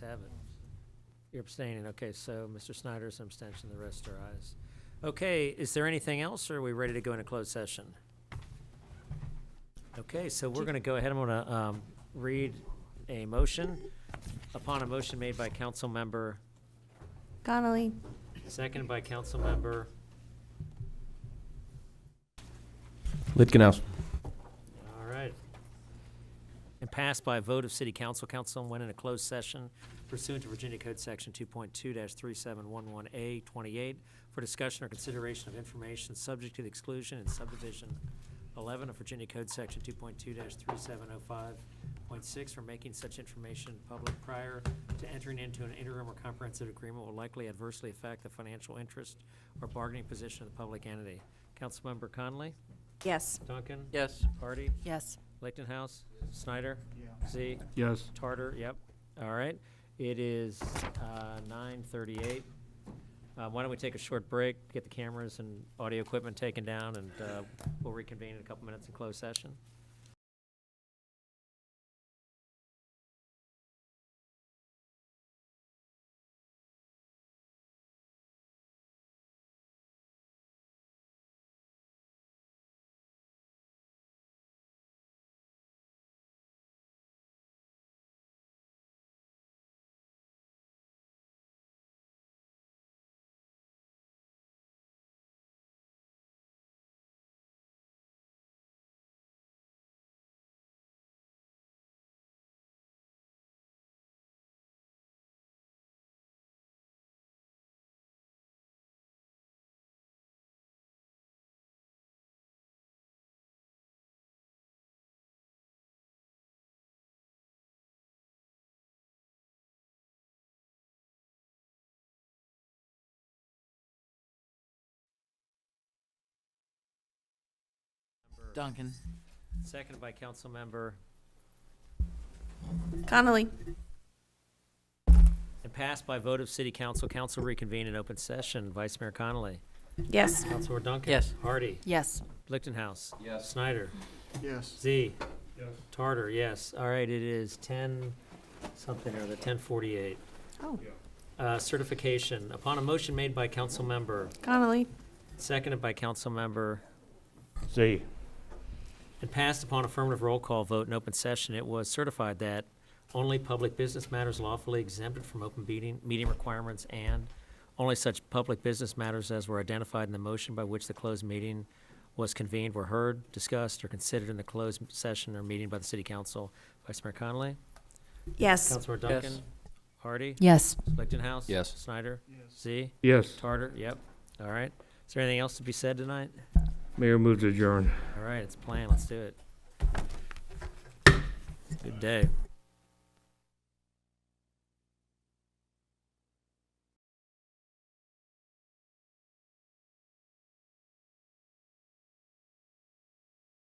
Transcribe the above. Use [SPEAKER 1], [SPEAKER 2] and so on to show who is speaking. [SPEAKER 1] to have it. You're abstaining, okay, so Mr. Snyder's an abstention, the rest are ayes. Okay, is there anything else, or are we ready to go into closed session? Okay, so we're gonna go ahead, I'm gonna, um, read a motion. Upon a motion made by council member,
[SPEAKER 2] Connolly.
[SPEAKER 1] seconded by council member,
[SPEAKER 3] Litgenhouse.
[SPEAKER 1] all right. And passed by a vote of city council, council went into closed session pursuant to Virginia Code Section two point two three seven one one A twenty-eight for discussion or consideration of information subject to the exclusion in subdivision eleven of Virginia Code Section two point two three seven oh five point six for making such information public prior to entering into an interim or comprehensive agreement will likely adversely affect the financial interest or bargaining position of the public entity. Councilmember Conley?
[SPEAKER 2] Yes.
[SPEAKER 1] Duncan?
[SPEAKER 4] Yes.
[SPEAKER 1] Hardy?
[SPEAKER 2] Yes.
[SPEAKER 1] Lichtenhouse? Snyder? Z?
[SPEAKER 3] Yes.
[SPEAKER 1] Tartar, yep. All right. It is uh, 9:38. Uh, Why don't we take a short break, get the cameras and audio equipment taken down, and uh, we'll reconvene in a couple minutes in closed session.
[SPEAKER 4] Duncan.
[SPEAKER 1] Seconded by Councilmember,
[SPEAKER 2] Connolly.
[SPEAKER 1] and passed by vote of City Council. Council reconvene in open session. Vice Mayor Connolly.
[SPEAKER 2] Yes.
[SPEAKER 1] Councilor Duncan.
[SPEAKER 4] Yes.
[SPEAKER 1] Hardy.
[SPEAKER 2] Yes.
[SPEAKER 1] Lichtenhouse.
[SPEAKER 3] Yes.
[SPEAKER 1] Snyder.
[SPEAKER 5] Yes.
[SPEAKER 1] Z. Tartar, yes. All right, it is 10 something or the 10:48.
[SPEAKER 2] Oh.
[SPEAKER 1] Uh, Certification. Upon a motion made by council member,
[SPEAKER 2] Connolly.
[SPEAKER 1] seconded by council member,
[SPEAKER 3] Z.
[SPEAKER 1] and passed upon affirmative roll call vote in open session, it was certified that only public business matters lawfully exempted from open meeting, meeting requirements and only such public business matters as were identified in the motion by which the closed meeting was convened were heard, discussed, or considered in the closed session or meeting by the city council. Vice Mayor Connolly?
[SPEAKER 2] Yes.
[SPEAKER 1] Councilor
[SPEAKER 4] Yes.
[SPEAKER 1] Duncan? Hardy?
[SPEAKER 2] Yes.
[SPEAKER 1] Lichtenhouse?
[SPEAKER 3] Yes.
[SPEAKER 1] Snyder? Z?
[SPEAKER 3] Yes.
[SPEAKER 1] Tarter? Yep. All right. Is there anything else to be said tonight?
[SPEAKER 3] Mayor moves adjourn.
[SPEAKER 1] All right, it's planned. Let's do it. Good day.